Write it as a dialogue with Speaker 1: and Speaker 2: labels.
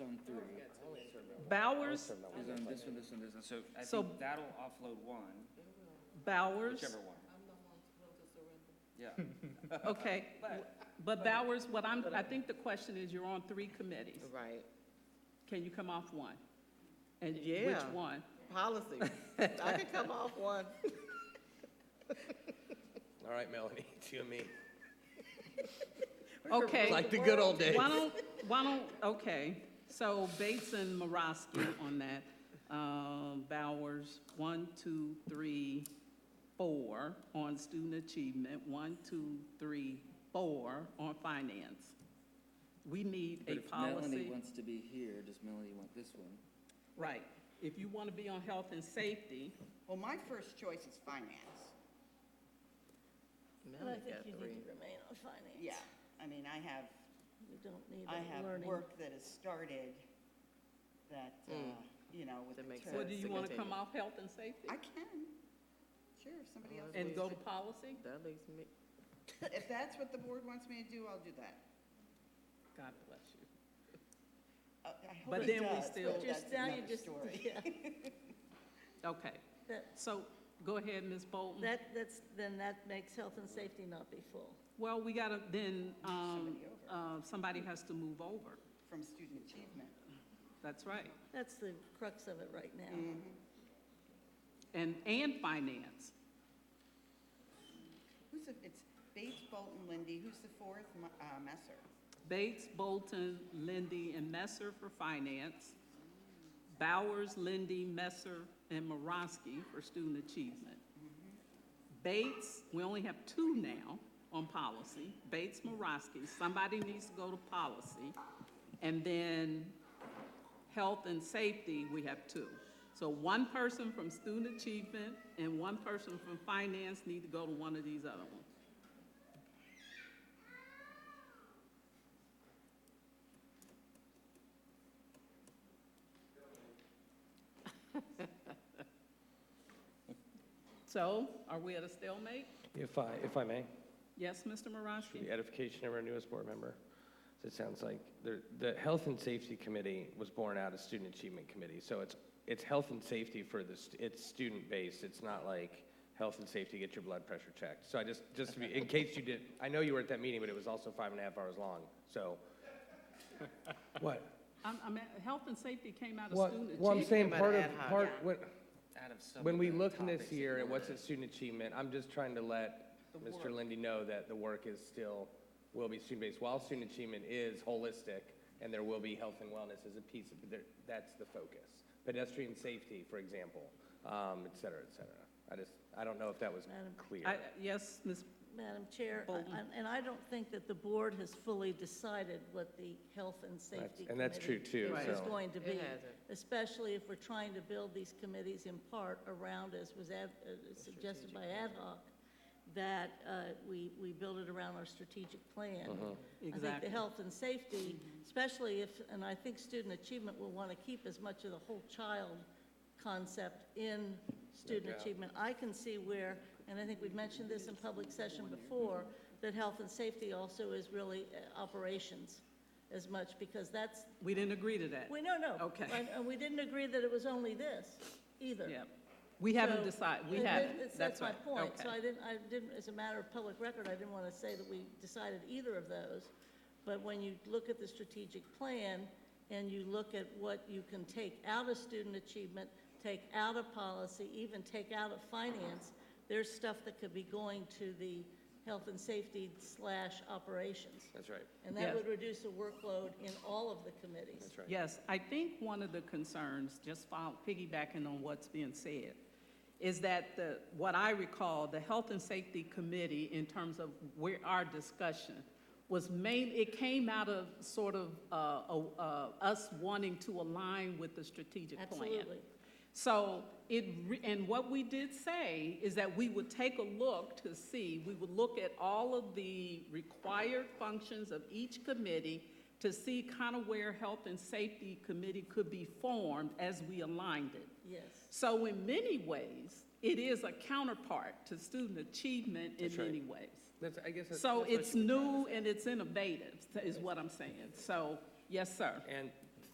Speaker 1: Bowers,
Speaker 2: It's on this one, this one, this one, so I
Speaker 1: So-
Speaker 2: think that'll offload one,
Speaker 1: Bowers,
Speaker 2: whichever one. Yeah,
Speaker 1: okay. But Bowers, what I'm, I think the question is, you're on three committees.
Speaker 3: Right,
Speaker 1: Can you come off one? And which
Speaker 3: Yeah.
Speaker 1: one?
Speaker 3: policy. I could come off one.
Speaker 4: All right, Melanie, it's you and me.
Speaker 1: Okay,
Speaker 4: Like the good old days.
Speaker 1: why don't, why don't, okay, so Bates and Maraski on that. Um, Bowers, one, two, three, four on student achievement, one, two, three, four on finance. We need
Speaker 2: but
Speaker 1: a
Speaker 2: if Melanie
Speaker 1: policy.
Speaker 2: wants to be here, does Melanie want this one?
Speaker 1: Right, if you want to be on health and safety,
Speaker 5: Well, my first choice is finance.
Speaker 6: But I
Speaker 3: Melanie
Speaker 6: think
Speaker 3: got
Speaker 6: you
Speaker 3: three.
Speaker 6: need to remain on finance.
Speaker 5: Yeah, I mean, I have,
Speaker 6: You don't need
Speaker 5: I
Speaker 6: a
Speaker 5: have
Speaker 6: learning.
Speaker 5: work that has started that, uh,
Speaker 1: Hmm.
Speaker 5: you know, with
Speaker 3: That makes
Speaker 5: the
Speaker 1: so
Speaker 5: term.
Speaker 1: do
Speaker 3: Yes,
Speaker 1: you
Speaker 3: to
Speaker 1: want to come
Speaker 3: continue.
Speaker 1: off health and safety?
Speaker 5: I can. Sure, if somebody else.
Speaker 1: And go
Speaker 5: wants
Speaker 1: to policy?
Speaker 3: That leaves me,
Speaker 5: to- If that's what the board wants me to do, I'll do that.
Speaker 1: God bless you.
Speaker 5: Uh, I hope
Speaker 1: But
Speaker 5: it
Speaker 1: then we
Speaker 5: does,
Speaker 1: still-
Speaker 5: but
Speaker 6: Just
Speaker 5: that's
Speaker 6: now, you
Speaker 5: another
Speaker 6: just,
Speaker 5: story.
Speaker 6: yeah.
Speaker 1: Okay,
Speaker 6: That,
Speaker 1: so go ahead, Ms. Bolton.
Speaker 6: that, that's, then that makes health and safety not be full.
Speaker 1: Well, we gotta, then, um,
Speaker 5: Somebody
Speaker 1: uh, somebody has to move over.
Speaker 5: From student achievement.
Speaker 1: That's right.
Speaker 6: That's the crux of it right now.
Speaker 5: Mm.
Speaker 1: And, and finance.
Speaker 5: Who's the, it's Bates, Bolton, Lindy, who's the fourth? Ma- uh, Messer.
Speaker 1: Bates, Bolton, Lindy, and Messer for finance. Bowers, Lindy, Messer, and Morosky for student achievement. Bates, we only have two now on policy. Bates, Morosky, somebody needs to go to policy. And then health and safety, we have two. So one person from student achievement and one person from finance need to go to one of these other ones. So are we at a stalemate?
Speaker 4: If I, if I may,
Speaker 1: Yes, Mr.
Speaker 4: for the
Speaker 1: Morosky?
Speaker 4: edification of our newest board member, so it sounds like the, the Health and Safety Committee was born out of Student Achievement Committee. So it's, it's health and safety for the, st- it's student-based. It's not like health and safety, get your blood pressure checked. So I just, just to be, in case you did, I know you were at that meeting, but it was also five and a half hours long, so. What?
Speaker 1: I'm, I'm, at- health and safety came out of
Speaker 4: Well,
Speaker 1: student
Speaker 4: well, I'm
Speaker 1: achievement.
Speaker 4: saying
Speaker 3: out
Speaker 4: part
Speaker 3: of
Speaker 4: of,
Speaker 3: ad hoc.
Speaker 4: part,
Speaker 5: Yeah.
Speaker 4: when,
Speaker 2: Out of some
Speaker 4: when
Speaker 2: of
Speaker 4: we
Speaker 2: the
Speaker 4: look in
Speaker 2: topics
Speaker 4: this
Speaker 2: that
Speaker 4: year at
Speaker 2: were-
Speaker 4: what's at student achievement, I'm just trying to let Mr. Lindy know that the work is still, will be student-based. While student achievement is holistic, and there will be health and wellness as a piece, of there, that's the focus. Pedestrian safety, for example, um, et cetera, et cetera. I just, I don't know if that was
Speaker 6: Madam-
Speaker 4: clear.
Speaker 1: I- Yes, Ms.,
Speaker 6: Madam Chair, I-
Speaker 1: Bolton.
Speaker 6: and- and I don't think that the board has fully decided what the health and safety
Speaker 4: and that's true,
Speaker 6: committee
Speaker 4: too,
Speaker 6: is
Speaker 4: so-
Speaker 6: going to
Speaker 3: It
Speaker 6: be.
Speaker 3: hasn't.
Speaker 6: Especially if we're trying to build these committees in part around, as was ad- uh, suggested by ad hoc, that uh, we, we build it around our strategic plan. I think
Speaker 1: Exactly.
Speaker 6: the health and safety, especially if, and I think student achievement will want to keep as much of the whole child concept in student
Speaker 4: doubt.
Speaker 6: achievement. I can see where, and I think we've mentioned this in public session before, that health and safety also is really uh, operations as much, because that's,
Speaker 1: we didn't agree to that.
Speaker 6: we, no, no.
Speaker 1: Okay.
Speaker 6: And- And we didn't agree that it was only this either.
Speaker 1: Yeah. We haven't
Speaker 6: So-
Speaker 1: decided, we
Speaker 6: And
Speaker 1: haven't.
Speaker 6: that's-
Speaker 1: That's
Speaker 6: That's my
Speaker 1: right.
Speaker 6: point. So
Speaker 1: Okay.
Speaker 6: I didn't, I didn't, as a matter of public record, I didn't want to say that we decided either of those. But when you look at the strategic plan and you look at what you can take out of student achievement, take out of policy, even take out of finance, there's stuff that could be going to the health and safety slash operations.
Speaker 4: That's right,
Speaker 6: And that
Speaker 1: Yes.
Speaker 6: would reduce the workload in all of the committees.
Speaker 4: that's right.
Speaker 1: Yes, I think one of the concerns, just fol- piggybacking on what's being said, is that the, what I recall, the Health and Safety Committee, in terms of where our discussion, was main, it came out of sort of uh, a- uh, us wanting to align with the strategic plan.
Speaker 6: Absolutely.
Speaker 1: So it, re- and what we did say is that we would take a look to see, we would look at all of the required functions of each committee to see kind of where Health and Safety Committee could be formed as we aligned it.
Speaker 6: Yes.
Speaker 1: So in many ways, it is a counterpart to student achievement in
Speaker 4: That's right.
Speaker 1: many ways.
Speaker 4: That's, I guess. that's-
Speaker 1: So
Speaker 4: that's what
Speaker 1: it's
Speaker 4: you were trying to
Speaker 1: new and it's innovative, is what I'm saying. So, yes, sir.
Speaker 4: And